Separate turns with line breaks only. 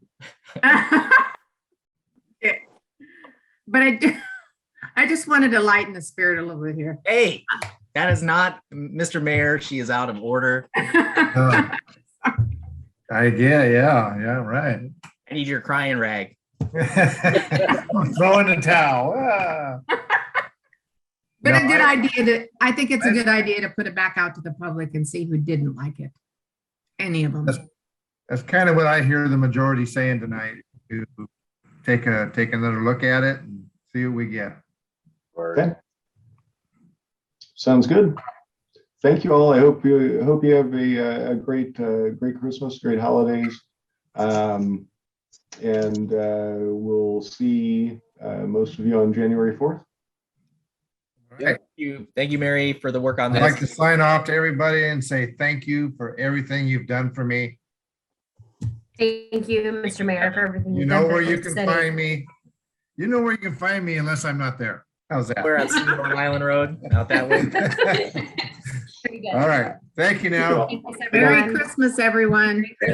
But I, do- I just wanted to lighten the spirit a little bit here.
Hey, that is not Mr. Mayor. She is out of order.
Uh, I yeah, yeah, yeah, right.
I need your crying rag.
Throw in the towel. Ah.
But a
No,
good
I-
idea to, I think it's a good idea to put it back out to the public and see who didn't like it. Any of them.
That's- That's kind of what I hear the majority saying tonight, to take a, take another look at it and see what we get.
Okay. Sounds good. Thank you all. I hope you, hope you have a, uh, a great, uh, great Christmas, great holidays. Um, and, uh, we'll see, uh, most of you on January 4th.
Thank you, thank you, Mary, for the work on
I'd like to
this.
sign off to everybody and say thank you for everything you've done for me.
Thank you, Mr. Mayor, for everything.
You
you've done
know
for
where you
the
can
city.
find me. You know where you can find me unless I'm not there. How's
We're at Long Island Road, out that way.
that?
Very good.
All right. Thank you now.
Thank you, everyone.
Merry Christmas, everyone.